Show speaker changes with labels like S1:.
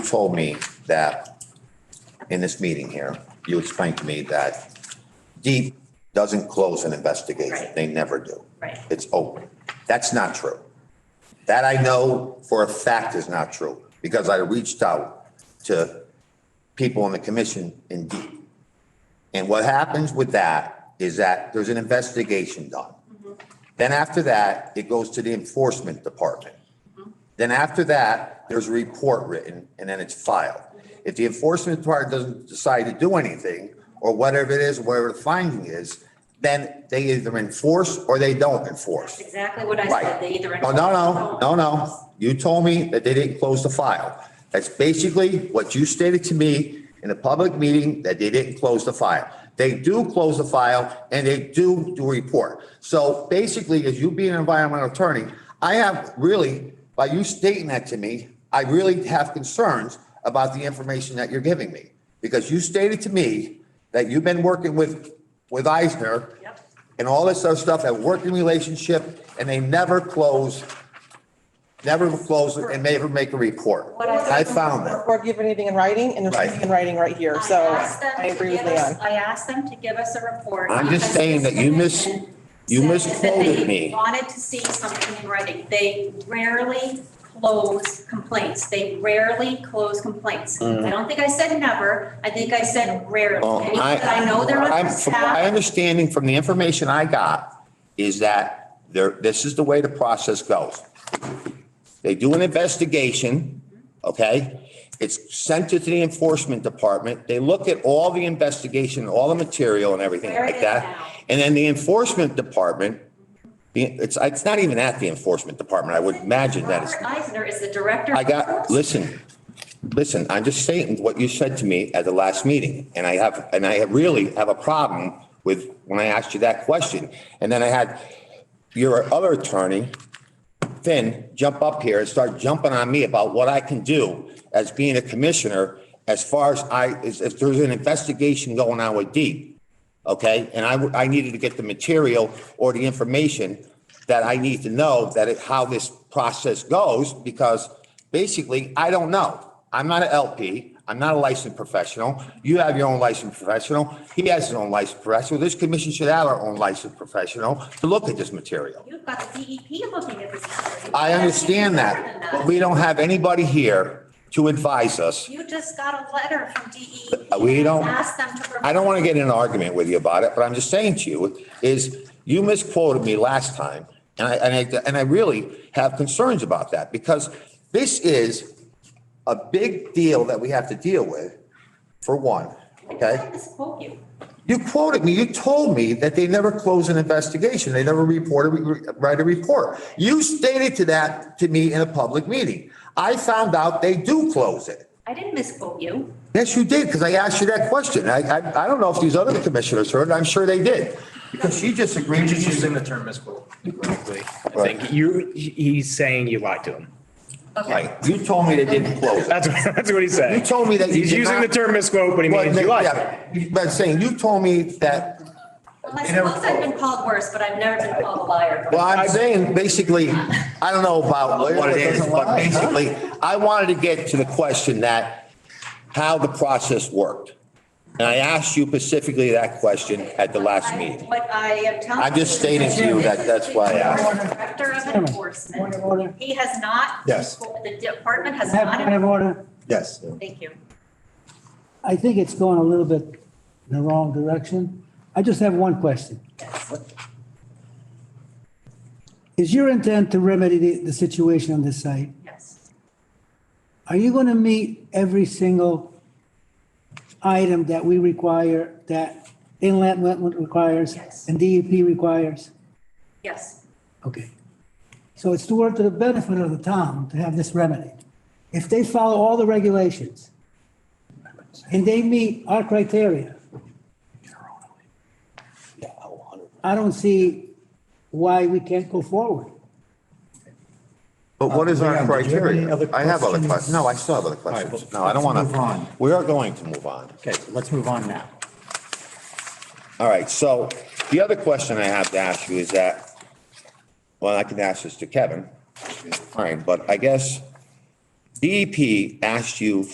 S1: told me that in this meeting here, you explained to me that deep doesn't close an investigation.
S2: Right.
S1: They never do.
S2: Right.
S1: It's open. That's not true. That I know for a fact is not true because I reached out to people on the commission in deep. And what happens with that is that there's an investigation done. Then after that, it goes to the enforcement department. Then after that, there's a report written and then it's filed. If the enforcement department doesn't decide to do anything or whatever it is, whatever the finding is, then they either enforce or they don't enforce.
S2: Exactly what I
S1: Right.
S2: said, they either.
S1: No, no, no, no, no. You told me that they didn't close the file. That's basically what you stated to me in a public meeting, that they didn't close the file. They do close the file and they do do a report. So basically, as you being an environmental attorney, I have really, by you stating that to me, I really have concerns about the information that you're giving me. Because you stated to me that you've been working with, with Eisner
S2: Yep.
S1: and all this other stuff, a working relationship, and they never close, never close it and never make a report.
S2: What I-
S1: I found that.
S3: Or give anything in writing, and there's
S1: Right.
S3: nothing in writing right here, so
S2: I asked them
S3: I
S2: to
S3: agree with
S2: give us-
S3: Leon.
S2: I asked them to give us a report.
S1: I'm just
S2: because
S1: saying
S2: this
S1: that you mis-
S2: commission
S1: you
S2: said that they
S1: misquoted me.
S2: Wanted to see something in writing. They rarely close complaints. They rarely close complaints. I don't think I said never. I think I said rarely.
S1: Mm. Well,
S2: And I know they're
S1: I'm- from My
S2: understaffed.
S1: understanding from the information I got is that there, this is the way the process goes. They do an investigation, okay? It's sent to the enforcement department. They look at all the investigation, all the material and everything
S2: Where it
S1: like
S2: is
S1: that.
S2: now.
S1: And then the enforcement department, the- it's, it's not even at the enforcement department. I would imagine that it's.
S2: Robert Eisner is the director.
S1: I
S2: of-
S1: got, listen, listen, I'm just stating what you said to me at the last meeting. And I have, and I really have a problem with when I asked you that question. And then I had your other attorney, Finn, jump up here and start jumping on me about what I can do as being a commissioner as far as I, as if there's an investigation going on with Deep. Okay? And I, w- I needed to get the material or the information that I need to know that it, how this process goes because basically I don't know. I'm not an LP. I'm not a licensed professional. You have your own licensed professional. He has his own licensed professional. This commission should have our own licensed professional to look at this material.
S2: You've got the E DEP looking at this.
S1: I understand that, but we don't have anybody here to advise us.
S2: You just got a letter from DEP.
S1: Uh, We don't-
S2: Ask them to.
S1: I don't want to get in an argument with you about it, but I'm just saying to you is you misquoted me last time. And I, and I, and I really have concerns about that because this is a big deal that we have to deal with, for one,
S2: I
S1: okay?
S2: can't misquote you.
S1: You quoted me, you told me that they never close an investigation, they never reported, write a report. You stated to that to me in a public meeting. I found out they do close it.
S2: I didn't misquote you.
S1: Yes, you did, because I asked you that question. I, I, I don't know if these other commissioners heard, and I'm sure they did. Because she just agreed,
S4: He's
S1: she's
S4: using
S1: in
S4: the
S1: the,
S4: term misquote incorrectly. I
S1: Right.
S4: think you, he- he's saying you lied to him.
S1: right, you told me they didn't close it.
S4: That's, what- that's what he's saying.
S1: You told me that you
S4: He's
S1: did
S4: using
S1: not-
S4: the term misquote, but he means you lied. to him.
S1: Yeah, But saying, you told me that,
S2: Well, I
S1: They never
S2: suppose I've been called worse, but I've never been called a liar.
S1: well, I'm saying, basically, I don't know about what it is, but basically, I wanted to get to the question that, how the process worked. And I asked you specifically that question at the last meeting.
S2: What I am telling.
S1: I just stated to you that that's why I asked.
S2: Director of enforcement, he has not.
S5: Yes.
S2: The department has
S6: Have point
S2: not,
S6: of order.
S5: Yes.
S2: thank you.
S6: I think it's going a little bit in the wrong direction. I just have one question. Is your intent to remedy the, the situation on this site?
S2: Yes,
S6: Are you going to meet every single item that we require, that inlet wetland requires
S2: Yes.
S6: and DEP requires?
S2: yes,
S6: Okay. So it's to work to the benefit of the town to have this remedied. If they follow all the regulations and they meet our criteria, I don't see why we can't go forward.
S1: But what is our
S5: Leon, did you Uh, have any
S1: criteria?
S5: other
S1: I have other
S5: questions?
S1: questions. No, I still have other questions.
S5: but
S1: No, I don't want
S5: let's move on.
S1: to. We are going to move on.
S5: Okay, let's move on now.
S1: All right, so the other question I have to ask you is that, well, I can ask this to Kevin. Fine, but I guess DEP E asked you